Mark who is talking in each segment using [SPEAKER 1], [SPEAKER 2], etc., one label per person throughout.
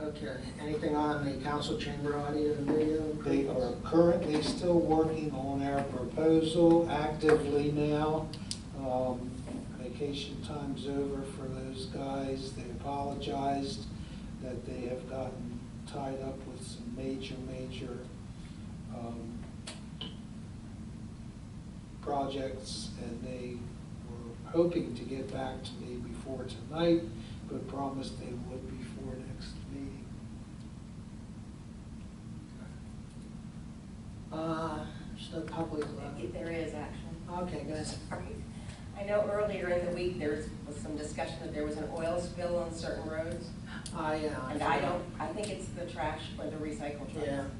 [SPEAKER 1] Okay, anything on the council chamber audio and video?
[SPEAKER 2] They are currently still working on our proposal actively now. Um, Vacation time's over for those guys. They apologized that they have gotten tied up with some major, major um, projects, and they were hoping to get back to me before tonight, but promised they would before next meeting.
[SPEAKER 1] Uh, still public, uh,
[SPEAKER 3] There is action.
[SPEAKER 1] okay, guys,
[SPEAKER 3] I know earlier in the week, there was some discussion that there was an oil spill on certain roads.
[SPEAKER 1] I, uh.
[SPEAKER 3] And I don't, I think it's the trash or the recycle
[SPEAKER 1] Yeah,
[SPEAKER 3] trucks.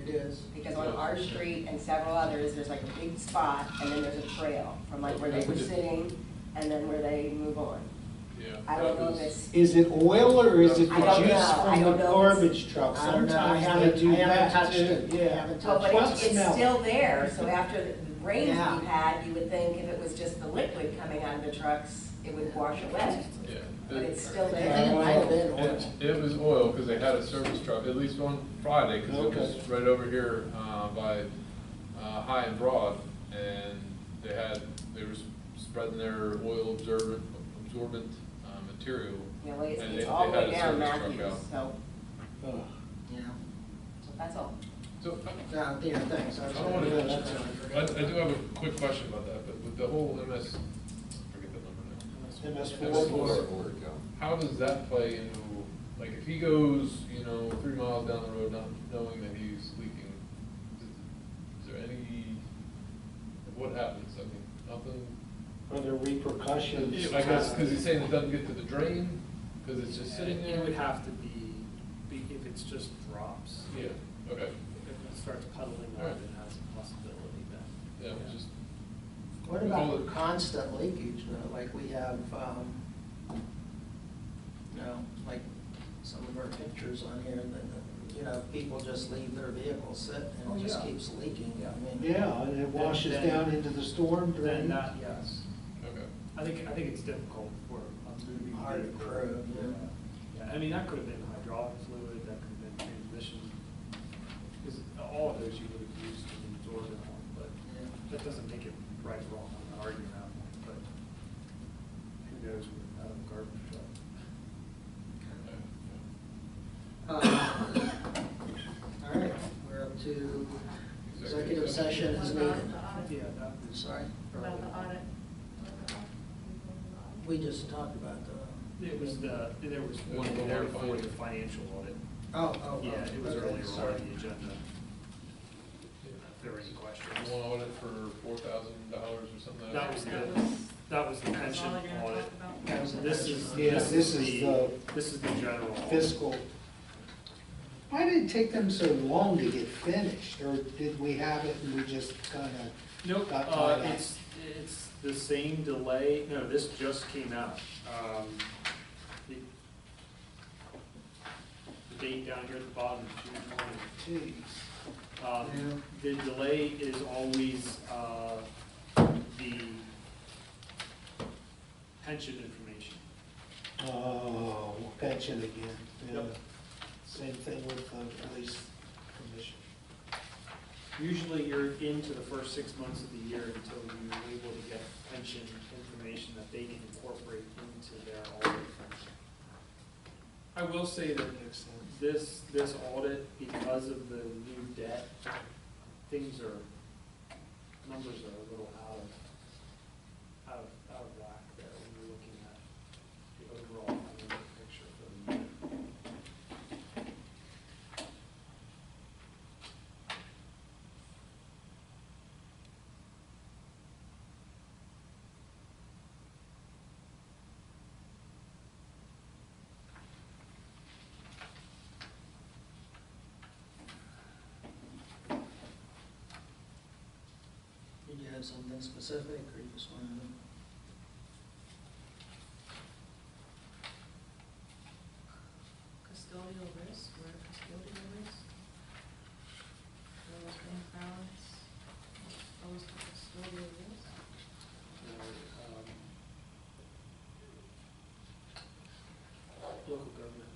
[SPEAKER 1] it is.
[SPEAKER 3] Because on our street and several others, there's like a big spot and then there's a trail from like where they were sitting and then where they move on.
[SPEAKER 4] Yeah.
[SPEAKER 3] I don't
[SPEAKER 4] that
[SPEAKER 3] know
[SPEAKER 4] was-
[SPEAKER 3] if it's,
[SPEAKER 2] Is it oil or is it the
[SPEAKER 3] I don't know.
[SPEAKER 2] juice
[SPEAKER 3] I
[SPEAKER 2] from the
[SPEAKER 3] don't know.
[SPEAKER 2] garbage truck?
[SPEAKER 1] I don't know. I
[SPEAKER 2] Sometimes
[SPEAKER 1] haven't-
[SPEAKER 2] they do
[SPEAKER 1] I haven't
[SPEAKER 2] that
[SPEAKER 1] touched
[SPEAKER 2] too.
[SPEAKER 1] it. I
[SPEAKER 2] Yeah.
[SPEAKER 1] haven't
[SPEAKER 3] oh,
[SPEAKER 1] touched
[SPEAKER 3] but
[SPEAKER 1] it.
[SPEAKER 2] Trucks
[SPEAKER 3] it's, it's
[SPEAKER 2] smell.
[SPEAKER 3] still there. So after the rains we've
[SPEAKER 1] Yeah.
[SPEAKER 3] had, you would think if it was just the liquid coming out of the trucks, it would wash away.
[SPEAKER 4] Yeah.
[SPEAKER 3] But
[SPEAKER 4] It-
[SPEAKER 3] it's still
[SPEAKER 1] I
[SPEAKER 3] there.
[SPEAKER 1] think it might have been
[SPEAKER 4] It
[SPEAKER 1] oil.
[SPEAKER 4] it was oil, because they had a service truck, at least on Friday, because it was
[SPEAKER 2] Okay.
[SPEAKER 4] right over here uh, by uh, High and Broad, and they had, they were spreading their oil absorbent, absorbent uh, material.
[SPEAKER 3] You know, it's,
[SPEAKER 4] and they-
[SPEAKER 3] it's all
[SPEAKER 4] they
[SPEAKER 3] the
[SPEAKER 4] had
[SPEAKER 3] way
[SPEAKER 4] a
[SPEAKER 3] down
[SPEAKER 4] service truck
[SPEAKER 3] Matthews,
[SPEAKER 4] out.
[SPEAKER 3] so,
[SPEAKER 2] Ugh.
[SPEAKER 1] Yeah,
[SPEAKER 3] so that's all.
[SPEAKER 4] So,
[SPEAKER 1] yeah, yeah, thanks. I was
[SPEAKER 4] I wanna-
[SPEAKER 1] gonna-
[SPEAKER 4] I, I do have a quick question about that, but with the whole MS, forget the number now.
[SPEAKER 2] MS
[SPEAKER 4] MS
[SPEAKER 2] four.
[SPEAKER 4] How does that play into, like, if he goes, you know, three miles down the road not knowing that he's leaking, is there any, what happens? I mean, nothing?
[SPEAKER 2] Are there repercussions?
[SPEAKER 4] I guess, because he's saying it doesn't get to the drain, because it's just sitting there?
[SPEAKER 5] It would have to be, be- if it's just drops,
[SPEAKER 4] Yeah, okay,
[SPEAKER 5] if it starts puddling up,
[SPEAKER 4] Alright.
[SPEAKER 5] it has a possibility that.
[SPEAKER 4] yeah, it was just,
[SPEAKER 1] What about constant leakage, though, like we have, um, you know, like some of our pictures on here, that, that, you know, people just leave their vehicles sit
[SPEAKER 5] Oh,
[SPEAKER 1] and it just
[SPEAKER 5] yeah.
[SPEAKER 1] keeps leaking, I mean.
[SPEAKER 2] Yeah, and it washes
[SPEAKER 5] Then-
[SPEAKER 2] down into the storm
[SPEAKER 5] Then uh,
[SPEAKER 2] drain.
[SPEAKER 5] that, yes.
[SPEAKER 4] okay.
[SPEAKER 5] I think, I think it's difficult for a moving
[SPEAKER 1] Hard to
[SPEAKER 5] vehicle.
[SPEAKER 1] prove, yeah.
[SPEAKER 5] Yeah, I mean, that could have been hydraulic fluid, that could have been transmission, because all of those you would have used to absorb it on, but
[SPEAKER 1] Yeah.
[SPEAKER 5] that doesn't make it right or wrong, I'm not arguing that point, but who knows with out of garbage truck.
[SPEAKER 4] okay, yeah.
[SPEAKER 1] Uh, All right, we're up to executive session
[SPEAKER 6] What
[SPEAKER 1] is
[SPEAKER 6] about
[SPEAKER 1] needed.
[SPEAKER 6] the audit?
[SPEAKER 5] Yeah, that was.
[SPEAKER 1] Sorry,
[SPEAKER 6] About the audit?
[SPEAKER 1] we just talked about the.
[SPEAKER 5] It was the, there was
[SPEAKER 4] It was
[SPEAKER 5] one
[SPEAKER 4] the
[SPEAKER 5] there
[SPEAKER 4] one
[SPEAKER 5] for the
[SPEAKER 4] financial.
[SPEAKER 5] financial audit.
[SPEAKER 1] Oh, oh, oh.
[SPEAKER 5] Yeah, it was
[SPEAKER 1] okay,
[SPEAKER 5] earlier on
[SPEAKER 1] sorry.
[SPEAKER 5] the agenda. If there were any questions.
[SPEAKER 4] You want to audit for four thousand dollars or something? like
[SPEAKER 5] That was
[SPEAKER 6] That
[SPEAKER 5] the,
[SPEAKER 6] was-
[SPEAKER 5] that was the
[SPEAKER 6] That's
[SPEAKER 5] pension
[SPEAKER 6] all you're gonna
[SPEAKER 5] audit.
[SPEAKER 6] talk about?
[SPEAKER 1] That was the
[SPEAKER 5] This
[SPEAKER 1] pension
[SPEAKER 5] is,
[SPEAKER 1] audit.
[SPEAKER 2] Yes,
[SPEAKER 5] this is the, this is the general. audit.
[SPEAKER 2] Fiscal. Why did it take them so long to get finished? Or did we have it and we just kind of,
[SPEAKER 5] Nope,
[SPEAKER 2] Got
[SPEAKER 5] uh,
[SPEAKER 2] tied up.
[SPEAKER 5] it's, it's the same delay, no, this just came out. Um, The the date down here at the bottom, June one.
[SPEAKER 2] geez.
[SPEAKER 5] Um, The delay is always uh, the pension information.
[SPEAKER 2] Oh, pension again. Yeah.
[SPEAKER 5] Yep.
[SPEAKER 2] Same thing with the police commission.
[SPEAKER 5] Usually you're into the first six months of the year until you're able to get pension information that they can incorporate into their audit. I will say that this, this audit, because of the new debt, things are, numbers are a little out of, out of, out of whack there when you're looking at the overall financial picture for the year.
[SPEAKER 1] Did you have something specific, or you just wanted to?
[SPEAKER 5] um,